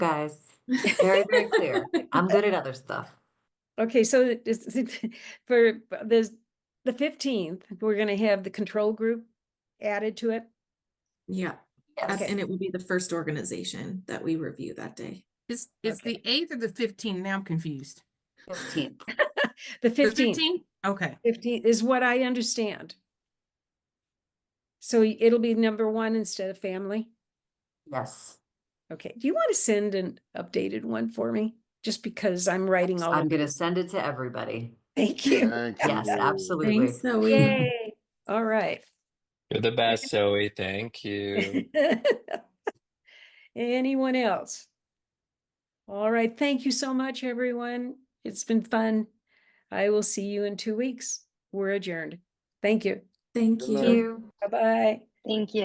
guys. Very, very clear. I'm good at other stuff. Okay, so it is- for for this, the fifteenth, we're gonna have the control group added to it. Yeah, Yes. that's- and it will be the first organization that we review that day. It's, it's the eighth or the fifteenth? Now I'm confused. Fifteenth. The The fifteenth, 15th? Okay, fifteenth is what I understand. So y- it'll be number one instead of family. Yes. Okay, do you want to send an updated one for me? Just because I'm writing all, I'm of gonna send it to everybody. thank you. Thank Yes, you. absolutely. Thanks, Zoe. Yay, all right. You're the best, Zoe. Thank you. Anyone else? All right, thank you so much, everyone. It's been fun. I will see you in two weeks. We're adjourned. Thank you. Thank Good you. night. Thank you. Bye-bye. Thank you.